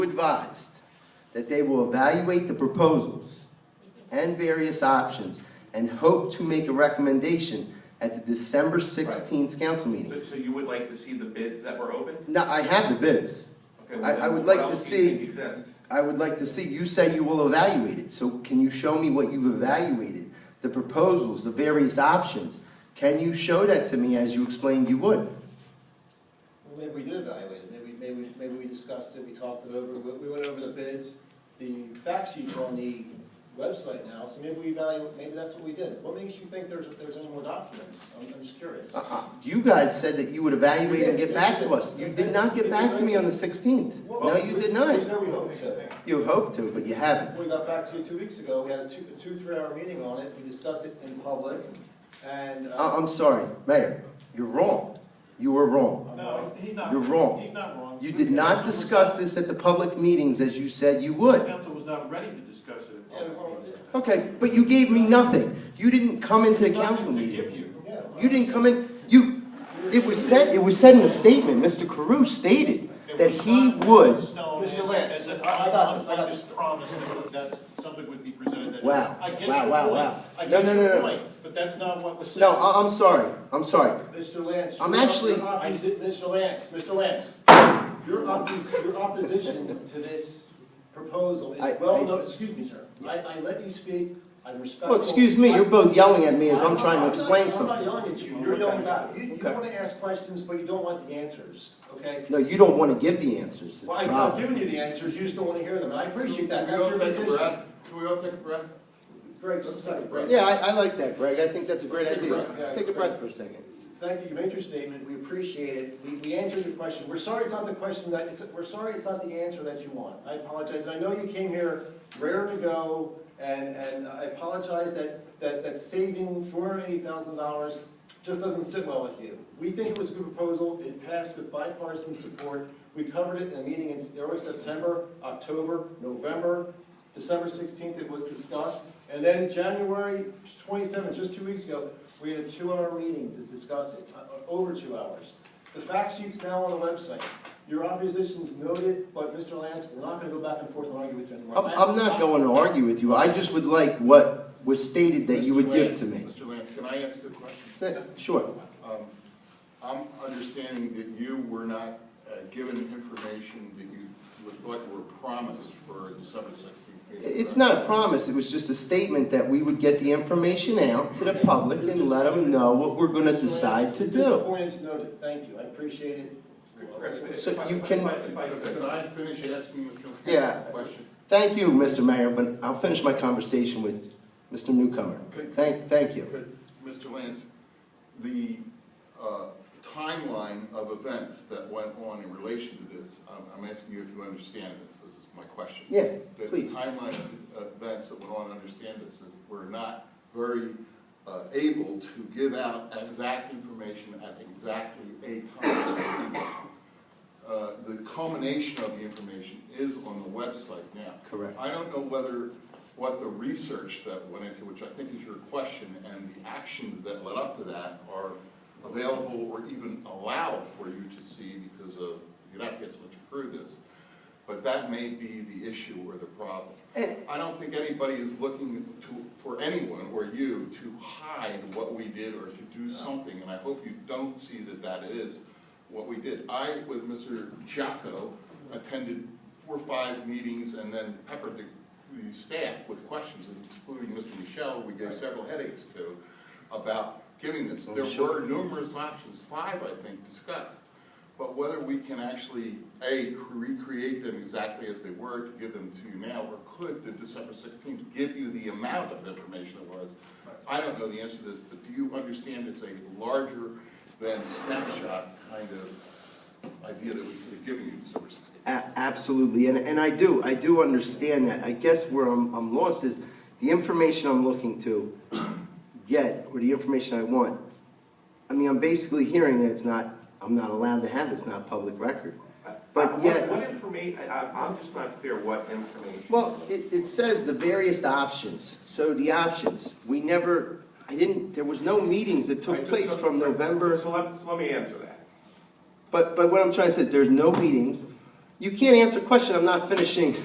advised that they will evaluate the proposals and various options and hope to make a recommendation at the December 16th council meeting. So, so you would like to see the bids that were open? Now, I have the bids. Okay, well, I- then I would what like to else do you see- think exists? I would like to see, you say you will evaluate it, so can you show me what you've evaluated? The proposals, the various options? Can you show that to me as you explained you would? Well, maybe we did evaluate it, maybe, maybe, maybe we discussed it, we talked it over, we, we went over the bids. The fact sheet's on the website now, so maybe we evaluate, maybe that's what we did. What makes you think there's, there's any more documents? I'm, I'm just curious. Uh-uh. You guys said that you would evaluate and get back to us. You did not get back to me on the 16th. No, you did Well, we- We not. said we hoped to. You hoped to, but you haven't. We got back to you two weeks ago, we had a two, a two, three-hour meeting on it, we discussed it in public, and, I- uh, I'm sorry, Mayor, you're wrong. You were wrong. No, he's not. You're wrong. He's not wrong. You did not Council was- discuss this at the public meetings as you said you would. Council was not ready to discuss it. in Yeah, well, public. Okay, but you gave me nothing. You didn't come into the Nothing council to meeting. give you. yeah. You didn't come in, you, it was said, it was said in a statement, Mr. Carew stated It that was he not would, Stone Mr. as- Lance, as an I- I got this, I got unfunded this. Promise that that's, something would be presented that. Wow, I get wow, your wow, point. wow. I No, no, get no, your no. point, but that's not what was said. no, I, I'm sorry, I'm sorry. Mr. Lance. I'm your- actually- your opposi- Mr. Lance, Mr. Lance, your oppos, your opposition to this proposal I- is well I- known, excuse me, sir. I, I let you speak, I'm respectful. Well, excuse me, you're both yelling at me as I'm trying to not- explain I'm something. not yelling at you, you're yelling about, you, you Okay. wanna ask questions, but you don't want the answers, okay? No, you don't wanna give the answers, is Well, the I- I've problem. given you the answers, you just don't wanna hear them, and I appreciate that, Can that's we your all take a position. breath? Can we all take a breath? Greg, just a second, Greg. Yeah, I, I like that, Greg, I think that's a great Let's take a idea. breath. Let's take a breath for a second. Thank you, you made your statement, we appreciate it, we, we answered your question, we're sorry it's not the question that, it's, we're sorry it's not the answer that you want. I apologize, and I know you came here rare to go, and, and I apologize that, that, that saving four hundred eighty thousand dollars just doesn't sit well with you. We think it was a good proposal, it passed with bipartisan support, we covered it in a meeting in early September, October, November, December sixteenth, it was discussed, and then January twenty-seventh, just two weeks ago, we had a two-hour meeting to discuss it, uh, uh, over two hours. The fact sheet's now on the website. Your opposition's noted, but Mr. Lance, we're not gonna go back and forth and argue with you anymore. I'm, I'm not going to argue with you, I just would like what was stated that you would Mr. give Lance- to me. Mr. Lance, can I ask a question? Yeah, Sure. Um, I'm understanding that you were not uh, given information that you would, what were promised for December sixteenth. It's not a promise, it was just a statement that we would get the information out to the public and let them know what we're gonna decide to do. Disappointment's noted, thank you, I appreciate it. Chris, if I- So if I- you if can- I- if I could- Can I finish asking Mr. Lance Yeah. a question? Thank you, Mr. Mayor, but I'll finish my conversation with Mr. Newcomer. Thank, thank you. Could, Mr. Lance, the uh, timeline of events that went on in relation to this, I'm- I'm asking you if you understand this, this is my question. Yeah, The- please. The timeline of these events that went on, I understand this, is we're not very uh, able to give out exact information at exactly a time. Uh, The culmination of the information is on the website now. Correct. I don't know whether, what the research that went into, which I think is your question, and the actions that led up to that are available or even allowed for you to see because of, you're not getting much through this. But that may be the issue or the problem. And- I don't think anybody is looking to, for anyone or you to hide what we did or to do something, and I hope you don't see that that is what we did. I, with Mr. Jocko, attended four or five meetings and then peppered the, the staff with questions, including Mr. Michelle, we gave several headaches to, about giving this. There were numerous options, five, I think, discussed. But whether we can actually, A, recreate them exactly as they were to give them to you now, or could the December sixteenth give you the amount of information it was? I don't know the answer to this, but do you understand it's a larger than snapshot kind of idea that we could have given you December sixteenth? A- absolutely, and, and I do, I do understand that. I guess where I'm, I'm lost is the information I'm looking to get, or the information I want. I mean, I'm basically hearing that it's not, I'm not allowed to have, it's not public record. But What- yet- What information, I'm just not clear what information. Well, it, it says the various options, so the options, we never, I didn't, there was no meetings that I took just- place from so- November, So let, so let me answer that. but, but what I'm trying to say is there's no meetings, You can't answer a question, I'm not finishing